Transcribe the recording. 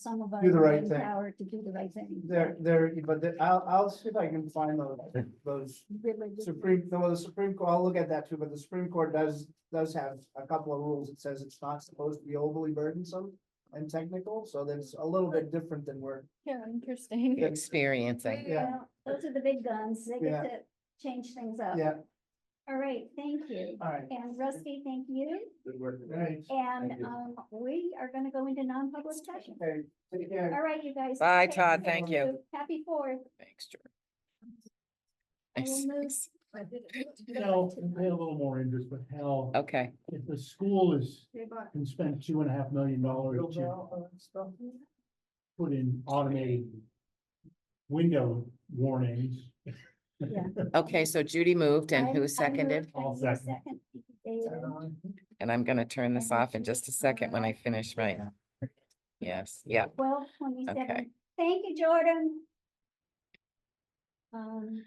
some of our. Do the right brain thing. Power to do the right thing. There, there, but the- I'll, I'll see if I can find those, those Really good. Supreme, no, the Supreme Court, I'll look at that too, but the Supreme Court does, does have a couple of rules. It says it's not supposed to be overly burdensome and technical, so that's a little bit different than we're. Yeah, interesting. Yeah. experiencing. Yeah. Those are the big guns. They Yeah. get to change things up. Yeah, All right, thank you. all right. And Rusty, thank you. Good work. Right. And Thank you. um, we are gonna go into non-public session. Okay, take care. All right, you guys. Bye, take Todd. care. Thank you. Happy fourth. Thanks, I Nice. will move. You know, it'll pay a little more interest, but hell, Okay, if the school is, can spend two and a half million dollars to uh, put in automated window warnings. okay, so Judy moved I- and I who moved, seconded? I I'll will second. second. David. And I'm gonna turn this I off in moved. just a second when I finish, right? Yes, yeah, Twelve Okay. twenty-seven. Thank you, Jordan. Um,